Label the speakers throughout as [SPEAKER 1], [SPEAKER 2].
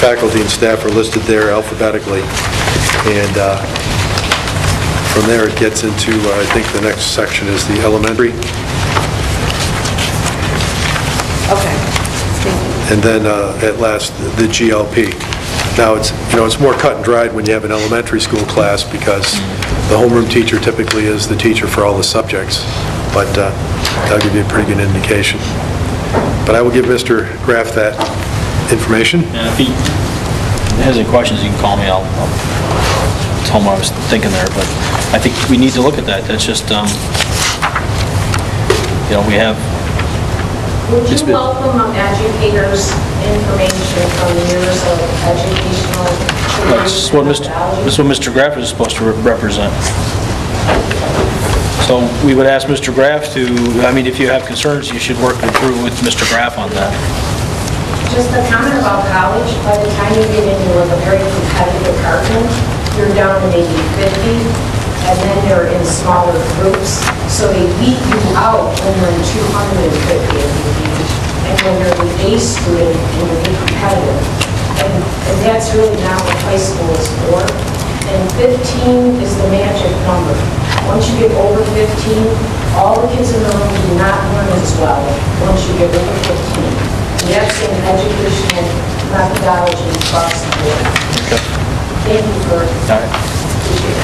[SPEAKER 1] faculty and staff are listed there alphabetically. And uh, from there, it gets into, uh, I think the next section is the elementary.
[SPEAKER 2] Okay.
[SPEAKER 1] and then uh, at last, the GLP. Now, it's, you know, it's more cut and dried when you have an elementary school class because the homeroom teacher typically is the teacher for all the subjects, but uh, that'll give you a pretty good indication. But I will give Mr. Graff that information.
[SPEAKER 3] And if he has any questions, he can call me, I'll I'll tell him what I was thinking there, but I think we need to look at that, that's just, um, you know, we have,
[SPEAKER 4] Would
[SPEAKER 3] It's
[SPEAKER 4] you
[SPEAKER 3] been-
[SPEAKER 4] welcome um, educators' information from years of educational...
[SPEAKER 3] that's what Mr.,
[SPEAKER 4] methodology?
[SPEAKER 3] that's what Mr. Graff is supposed to re- represent. So we would ask Mr. Graff to, I mean, if you have concerns, you should work it through with Mr. Graff on that.
[SPEAKER 4] Just the comment about college, by the time you get into a very competitive department, you're down to maybe 50, and then they're in smaller groups, so they beat you out when you're in 250 of you. And when you're the A student, and you're being competitive. And and that's really not what high school is for. And 15 is the magic number. Once you get over 15, all the kids in the room do not learn as well once you get over 15. We have seen educational methodology across the board. Thank you for
[SPEAKER 3] All right.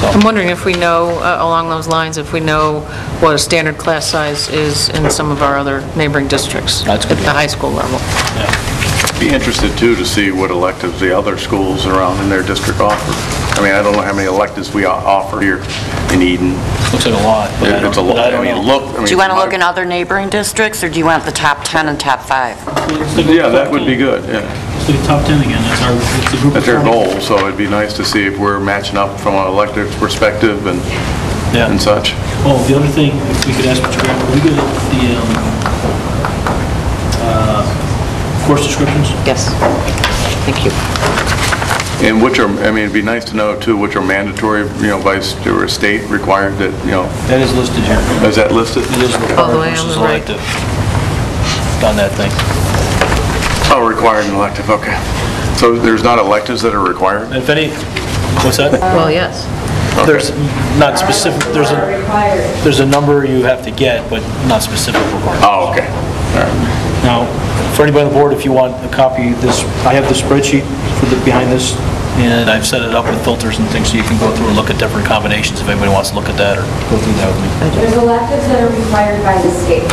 [SPEAKER 5] I'm wondering if we know, uh, along those lines, if we know what a standard class size is in some of our other neighboring districts at
[SPEAKER 3] That's good.
[SPEAKER 5] the high school level.
[SPEAKER 6] Be interested, too, to see what electives the other schools around in their district offer. I mean, I don't know how many electives we o- offer here in Eden.
[SPEAKER 3] Looks like a lot, but I don't
[SPEAKER 6] It's a
[SPEAKER 3] but I
[SPEAKER 6] lot, I
[SPEAKER 3] don't
[SPEAKER 6] mean,
[SPEAKER 3] know.
[SPEAKER 6] look. I
[SPEAKER 2] Do
[SPEAKER 6] mean,
[SPEAKER 2] you want to look in other neighboring districts, or do you want the top 10 and top 5?
[SPEAKER 6] Yeah, that would be good, yeah.
[SPEAKER 3] It's the top 10 again, that's our, it's the group.
[SPEAKER 6] That's our
[SPEAKER 3] of-
[SPEAKER 6] goal, so it'd be nice to see if we're matching up from an elective perspective and
[SPEAKER 3] Yeah.
[SPEAKER 6] and such.
[SPEAKER 3] Oh, the other thing, if we could ask Mr. Graham, are we good at the um, uh, course descriptions?
[SPEAKER 5] Yes. Thank you.
[SPEAKER 6] And which are, I mean, it'd be nice to know, too, which are mandatory, you know, by st- or state required that, you know,
[SPEAKER 3] That is listed here.
[SPEAKER 6] is that listed?
[SPEAKER 3] It is
[SPEAKER 5] All the
[SPEAKER 3] required
[SPEAKER 5] way on
[SPEAKER 3] versus
[SPEAKER 5] the right.
[SPEAKER 3] elective on that thing.
[SPEAKER 6] Oh, required and elective, okay. So there's not electives that are required?
[SPEAKER 3] If any, what's that?
[SPEAKER 5] Well, yes.
[SPEAKER 3] There's not specific, there's
[SPEAKER 4] Are
[SPEAKER 3] a,
[SPEAKER 4] required.
[SPEAKER 3] there's a number you have to get, but not specific requirements.
[SPEAKER 6] Oh, okay. All right.
[SPEAKER 3] Now, for anybody on the board, if you want a copy, of this, I have the spreadsheet for the, behind this, and I've set it up with filters and things, so you can go through and look at different combinations if anybody wants to look at that or go through that with me.
[SPEAKER 4] There's electives that are required by the state.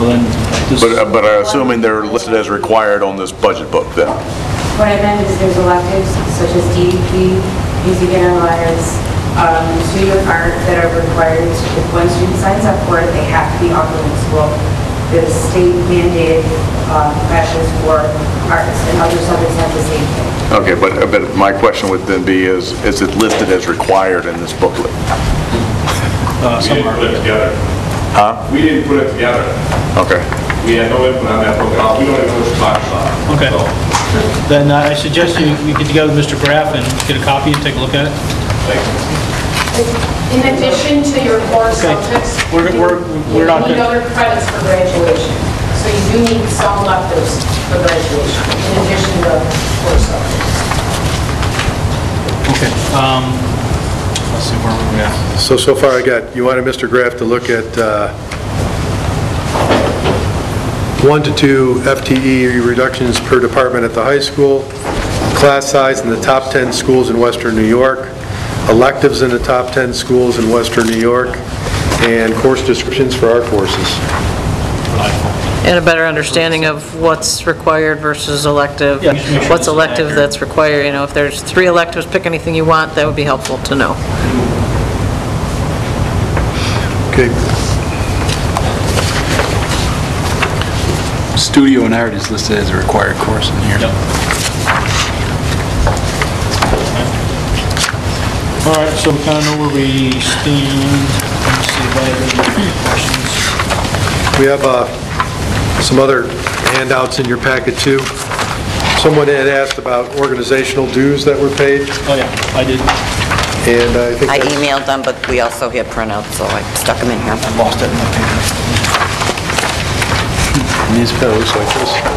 [SPEAKER 3] Well, then, this,
[SPEAKER 6] But, uh, but I'm assuming they're listed as required on this budget book then?
[SPEAKER 4] What I meant is there's electives such as DEP, music and alliance, um, studio and art that are required, to- if one student signs up for it, they have to be offered in school. The state mandated uh, professions for arts and other subjects have the same thing.
[SPEAKER 6] Okay, but, but my question would then be is, is it listed as required in this booklet?
[SPEAKER 3] uh,
[SPEAKER 7] We didn't put it
[SPEAKER 3] somewhere.
[SPEAKER 7] together. Huh? We didn't put it together.
[SPEAKER 6] Okay.
[SPEAKER 7] We had no input on that program. We don't even know which class it's on.
[SPEAKER 3] Okay.
[SPEAKER 7] So,
[SPEAKER 3] Then uh, I suggest you, we get together with Mr. Graff and get a copy and take a look at it.
[SPEAKER 7] thanks.
[SPEAKER 4] In addition to your core subjects, you
[SPEAKER 3] We're- we're-
[SPEAKER 4] you
[SPEAKER 3] we're not
[SPEAKER 4] need
[SPEAKER 3] gonna-
[SPEAKER 4] other credits for graduation. So you do need some electives for graduation, in addition to core subjects.
[SPEAKER 3] Okay. Let's see, where we at?
[SPEAKER 1] So, so far I got, you wanted Mr. Graff to look at uh, one to two FTE reductions per department at the high school, class size in the top 10 schools in western New York, electives in the top 10 schools in western New York, and course descriptions for our courses.
[SPEAKER 5] And a better understanding of what's required versus elective,
[SPEAKER 3] Yeah, just make sure
[SPEAKER 5] what's
[SPEAKER 3] it's
[SPEAKER 5] elective
[SPEAKER 3] accurate.
[SPEAKER 5] that's required, you know, if there's three electives, pick anything you want, that would be helpful to know.
[SPEAKER 1] Okay,
[SPEAKER 8] Studio and art is listed as a required course in here.
[SPEAKER 3] All right, so we kind of know where we stand. Let's see if I have any questions.
[SPEAKER 1] we have uh, some other handouts in your packet too. Someone had asked about organizational dues that were paid,
[SPEAKER 3] Oh, yeah, I did.
[SPEAKER 1] and I think
[SPEAKER 2] I
[SPEAKER 1] that's-
[SPEAKER 2] emailed them, but we also had printouts, so I stuck them in here.
[SPEAKER 3] I lost it in my paper.
[SPEAKER 8] Municipal resources.